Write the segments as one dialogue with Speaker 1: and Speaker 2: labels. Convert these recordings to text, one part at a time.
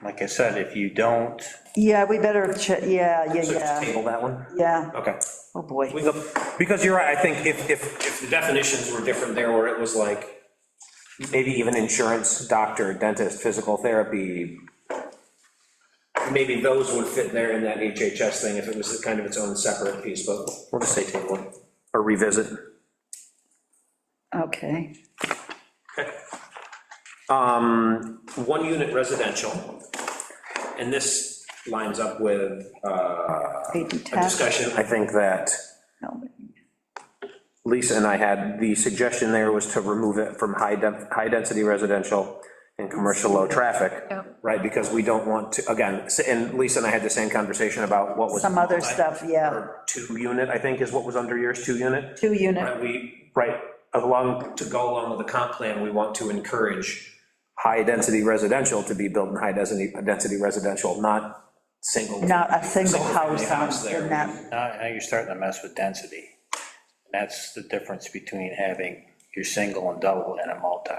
Speaker 1: Like I said, if you don't,
Speaker 2: Yeah, we better, che- yeah, yeah,
Speaker 1: so just
Speaker 2: yeah,
Speaker 1: table that one.
Speaker 2: yeah,
Speaker 1: Okay.
Speaker 2: oh boy.
Speaker 1: We go- Because you're right, I think if, if,
Speaker 3: If the definitions were different there, where it was like,
Speaker 1: maybe even insurance, doctor, dentist, physical therapy,
Speaker 3: maybe those would fit there in that HHS thing, if it was kind of its own separate piece, but
Speaker 1: we'll just say table it, or revisit.
Speaker 2: Okay,
Speaker 3: Um, one unit residential, and this lines up with uh,
Speaker 2: eight and
Speaker 3: a
Speaker 2: 10.
Speaker 3: discussion.
Speaker 1: I think that
Speaker 2: No,
Speaker 1: Lisa and I had, the suggestion there was to remove it from high, def- high-density residential and commercial low-traffic.
Speaker 4: Yeah.
Speaker 1: Right, because we don't want to, again, s- and Lisa and I had the same conversation about what was.
Speaker 2: Some other stuff, yeah,
Speaker 1: Two-unit, I think, is what was under yours, two-unit,
Speaker 2: two unit,
Speaker 3: Right, we,
Speaker 1: right, along
Speaker 3: to go along with the comp plan, we want to encourage,
Speaker 1: high-density residential to be built in high-density, density residential, not single.
Speaker 2: not a single house
Speaker 3: house
Speaker 2: on,
Speaker 3: there.
Speaker 2: in that,
Speaker 5: Now, now you're starting to mess with density. And that's the difference between having your single and double and a multi.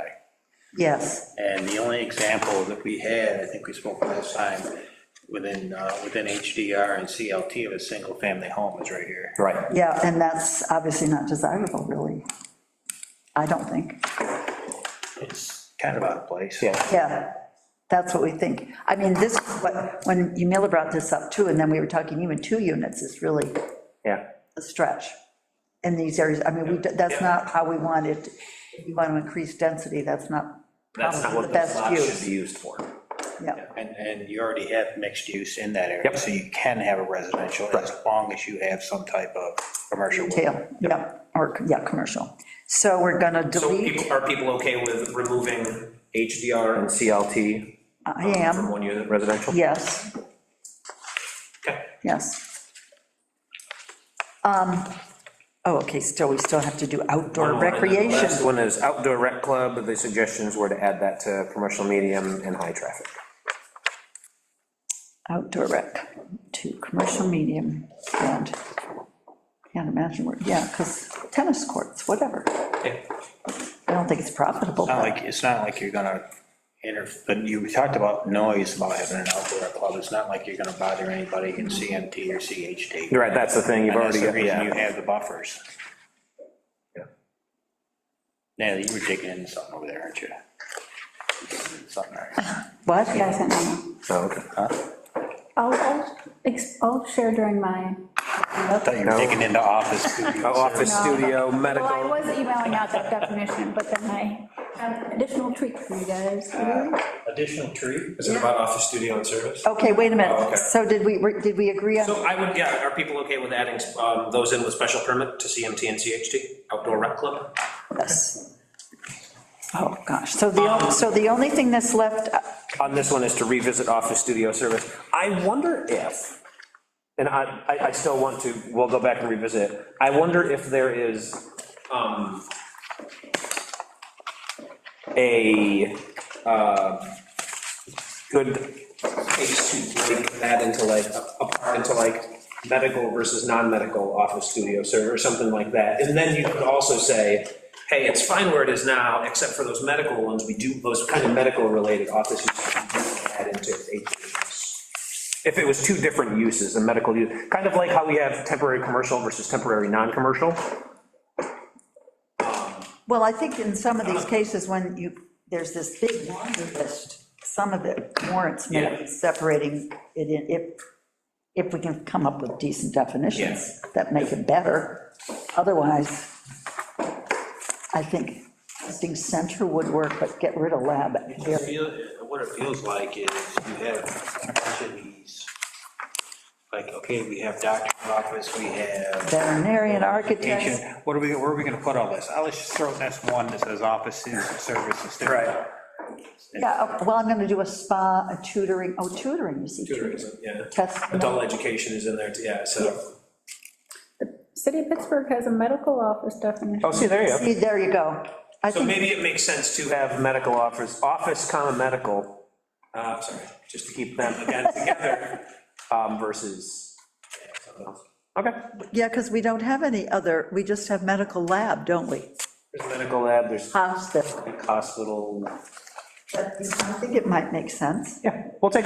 Speaker 2: yes,
Speaker 5: And the only example that we had, I think we spoke last time, within, uh, within HDR and CLT of a single-family home is right here.
Speaker 1: Right,
Speaker 2: yeah, and that's obviously not desirable, really. I don't think,
Speaker 5: It's kind of out of place.
Speaker 1: yeah,
Speaker 2: yeah, that's what we think. I mean, this, is what, when Yumila brought this up too, and then we were talking even two units is really
Speaker 1: yeah.
Speaker 2: a stretch in these areas. I mean, we, that's not how we want it, If you want to increase density, that's not
Speaker 3: That's not
Speaker 2: probably
Speaker 3: what
Speaker 2: the
Speaker 3: the
Speaker 2: best
Speaker 3: lot should
Speaker 2: use.
Speaker 1: Be used for.
Speaker 2: Yeah,
Speaker 5: And, and you already have mixed use in that area.
Speaker 1: Yep.
Speaker 5: So you can have a residential as long as you have some type of commercial.
Speaker 2: retail, yeah, or, yeah, commercial. So we're gonna
Speaker 3: so
Speaker 2: delete,
Speaker 3: people- are people okay with removing HDR
Speaker 1: And CLT
Speaker 2: I
Speaker 3: from
Speaker 2: am,
Speaker 3: one unit?
Speaker 1: residential?
Speaker 2: yes,
Speaker 3: Okay.
Speaker 2: yes. Um, oh, okay, still, we still have to do
Speaker 3: One
Speaker 2: outdoor
Speaker 3: more, and then the
Speaker 2: recreation.
Speaker 1: Next one is outdoor rec club, the suggestions were to add that to commercial medium and high traffic.
Speaker 2: outdoor rec to commercial medium and, can't imagine where, yeah, because tennis courts, whatever. I don't think it's profitable.
Speaker 3: Uh,
Speaker 1: Uh,
Speaker 5: Not like, it's not like you're gonna inter, but you talked about noise, about having an outdoor club, it's not like you're gonna bother anybody in CMT or CHD.
Speaker 1: You're Right, that's the thing, you've
Speaker 5: And
Speaker 1: already,
Speaker 5: that's the reason you
Speaker 1: yeah,
Speaker 5: have the buffers. Now, you were digging into something over there, aren't you? Something there.
Speaker 2: What?
Speaker 6: Yes, I know.
Speaker 1: so, okay. Uh,
Speaker 6: I'll, I'll, ex- I'll share during my.
Speaker 5: I thought you were
Speaker 1: No.
Speaker 5: digging into office.
Speaker 1: Oh, Office, studio,
Speaker 6: Well, I
Speaker 1: medical,
Speaker 6: was emailing out that definition, but then I have an additional tweak for you guys.
Speaker 3: Additional tree? Is it about office studio and service?
Speaker 2: Okay, wait a
Speaker 3: Oh,
Speaker 2: minute.
Speaker 3: okay.
Speaker 2: So did we, did we agree on,
Speaker 3: So I would, yeah, are people okay with adding um, those in with special permit to CMT and CHD, outdoor rec club?
Speaker 2: this? Oh, gosh. So the, so the only thing that's left, uh,
Speaker 1: on this one is to revisit office studio service. I wonder if, and I, I, I still want to, we'll go back and revisit it. I wonder if there is
Speaker 3: Um,
Speaker 1: a, uh, good,
Speaker 3: Takes to break that into like, apart into like medical versus non-medical office studio server, or something like that. And then you could also say, hey, it's fine where it is now, except for those medical ones, we do, those kind of medical-related offices, we do add into HHS.
Speaker 1: if it was two different uses, a medical use, kind of like how we have temporary commercial versus temporary non-commercial.
Speaker 2: well, I think in some of these cases, when you, there's this big laundry list, some of it warrants maybe separating it in, if, if we can come up with decent definitions that make it better. Otherwise, I think, I think center would work, but get rid of lab.
Speaker 5: It feel- What it feels like is you have a bunch of these, like, okay, we have doctor's office, we have
Speaker 2: Veterinarian,
Speaker 5: Agent,
Speaker 2: architect,
Speaker 5: what are we, where are we gonna put all this? I'll just throw this one that says offices and services. Right.
Speaker 2: yeah, oh, well, I'm gonna do a spa, a tutoring, oh, tutoring, you see.
Speaker 3: Tutoring, is- yeah.
Speaker 2: Test,
Speaker 3: Adult education is in there, too, yeah, so.
Speaker 6: City of Pittsburgh has a medical office definition.
Speaker 1: Oh, see, there you go.
Speaker 2: see, there you go. I
Speaker 3: So
Speaker 2: think,
Speaker 3: maybe it makes sense to have
Speaker 1: have medical office, office, comma, medical,
Speaker 3: Uh, sorry, just to keep
Speaker 1: keep them
Speaker 3: again together.
Speaker 1: um, versus, okay.
Speaker 2: yeah, because we don't have any other, we just have medical lab, don't we?
Speaker 1: There's medical lab, there's
Speaker 2: Hospital,
Speaker 1: hospital,
Speaker 2: but I think it might make sense.
Speaker 1: yeah, we'll take,